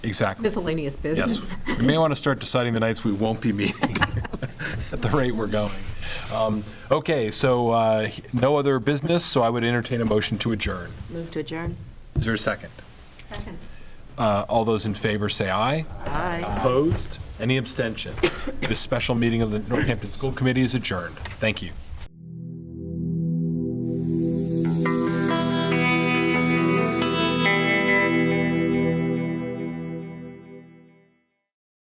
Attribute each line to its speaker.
Speaker 1: Exactly.
Speaker 2: miscellaneous business.
Speaker 1: Yes. We may want to start deciding the nights we won't be meeting at the rate we're going. Um, Okay, so uh, no other business, so I would entertain a motion to adjourn.
Speaker 3: Move to adjourn.
Speaker 1: Is there a second?
Speaker 2: Second.
Speaker 1: Uh, All those in favor say aye.
Speaker 3: Aye.
Speaker 1: Opposed? Any abstention? This special meeting of the Northampton School Committee is adjourned. Thank you.